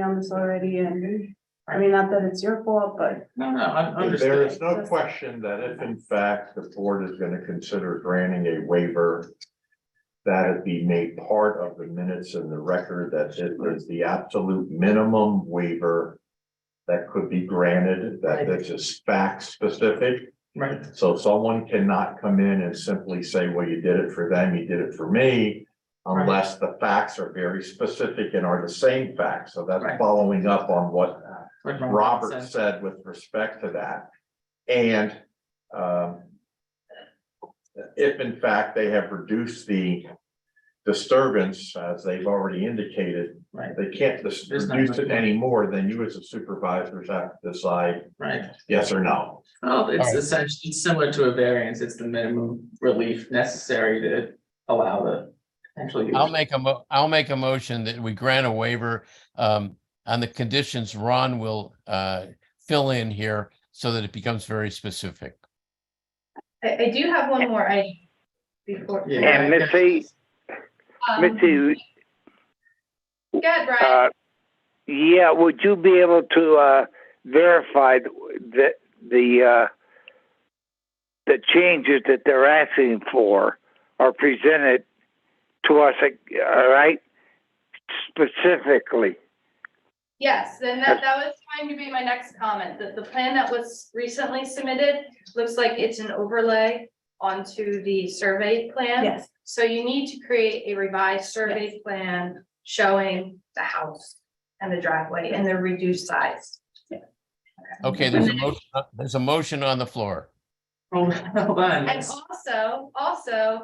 on this already and, I mean, not that it's your fault, but No, no, I There understand. is no question that if in fact the board is gonna consider granting a waiver. That it be made part of the minutes in the record that it is the absolute minimum waiver. That could be granted, that that's just fact specific, Right, so someone cannot come in and simply say, well, you did it for them, you did it for me. Right. Unless the facts are very specific and are the same facts, so that's Right. following up on what Like Robert said. said with respect to that. And um. If in fact they have reduced the disturbance, as they've already indicated, Right, they can't dis- There's not reduce much it more. anymore, then you as a supervisors have to decide right. yes or no. Well, it's Alright. essentially, it's similar to a variance. It's the minimum relief necessary to allow the potential use. I'll make a mo- I'll make a motion that we grant a waiver um on the conditions Ron will uh fill in here so that it becomes very specific. I, I do have one more, I, before. Yeah. And Missy, Um, Missy, Go ahead, Brian. uh, yeah, would you be able to, uh, verify that the, uh, the changes that they're asking for are presented to us, uh, all right? Specifically, Yes, then that, that was going to be my next comment, that the plan that was recently submitted looks like it's an overlay onto the survey plan. yes, So you need to create a revised survey plan showing the house and the driveway and the reduced size. Okay, there's a motion, uh, there's a motion on the floor. Hold on. And also, also,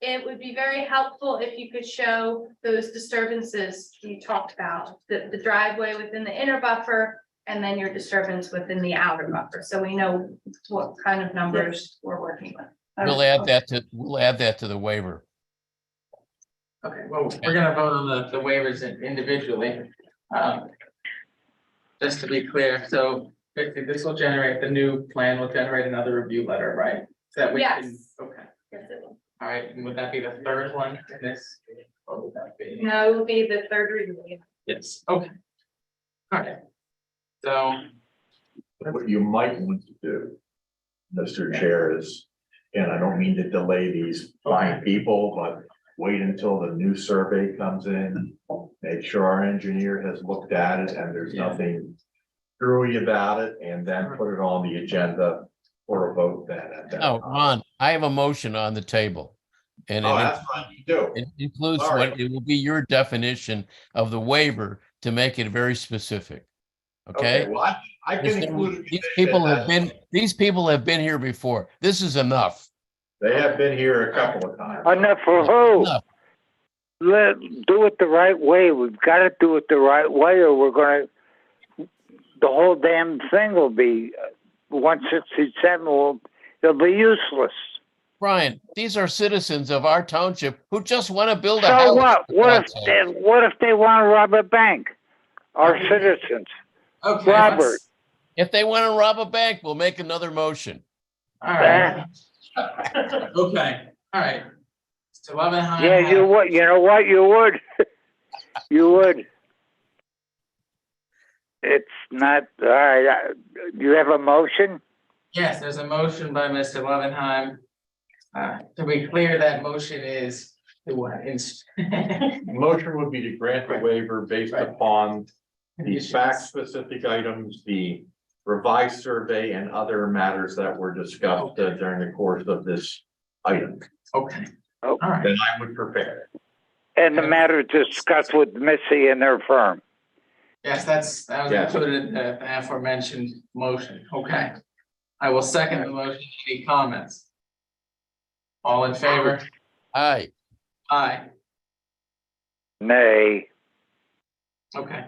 it would be very helpful if you could show those disturbances you talked about, the, the driveway within the inner buffer and then your disturbance within the outer buffer, so we know what kind of numbers we're working with. We'll add that to, we'll add that to the waiver. Okay, well, we're gonna vote on the, the waivers in- individually. Um, Just to be clear, so basically this will generate, the new plan will generate another review letter, right? So that we can, Yes. okay, all right, and would that be the third one in this? Or would that be? No, it will be the third reading. Yes, okay. All right. So, What you might want to do, Mr. Chair, is, and I don't mean to delay these fine people, but wait until the new survey comes in. Make sure our engineer has looked at it and there's Yeah. nothing screwy about it, and then put it on the agenda for a vote then at that. Oh, time. Ron, I have a motion on the table. And Oh, it that's fine, you do. it includes Sorry. what, it will be your definition of the waiver to make it very specific. Okay? Okay, well, I, I can include. a These condition people have that- been, these people have been here before. This is enough. They have been here a couple of times. enough for who? Enough. Let, do it the right way, we've gotta do it the right way, or we're gonna, the whole damn thing will be, uh, one sixty-seven will, it'll be useless. Brian, these are citizens of our township who just want to build a house. So what? for What God's if, sake. they- what if they want to rob a bank? Our Mm-hmm. Okay. citizens? okay. Robert. let's- If they want to rob a bank, we'll make another motion. All right. Okay, all right. It's eleven high. Yeah, you would, you know what, you would. You would. It's not, all right, I- you have a motion? Yes, there's a motion by Mr. Loveenheim. Uh, to be clear, that motion is the one inst- Motion would be to grant the Right. waiver based Right. upon the fact-specific items, the revised survey and other matters that were discussed uh, during the course of this item, Okay. Oh. All right, then I would prepare. And the matter discussed with Missy and her firm. yes, that's, that was Yeah. included in the aforementioned motion, okay. I will second the motion, any comments? All in favor? Aye. Aye. Nay, Okay.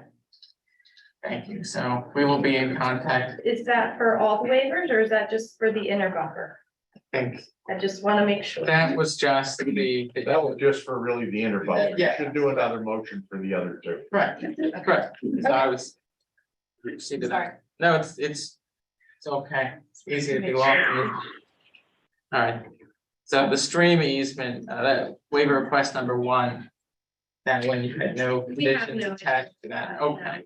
Thank you. So we will be in contact, Is that for all the waivers or is that just for the inner buffer? I think. I just want to make sure. That was just the. the- That was just for really the interval. You Yeah. should do another motion for the other two. Right, correct. So I was. See to that. Sorry. No, it's, it's, it's okay. It's easy to be lost. in. All right. So the stream easement, uh, that waiver request number one. That one, you had no We have conditions no- attached to that. Okay.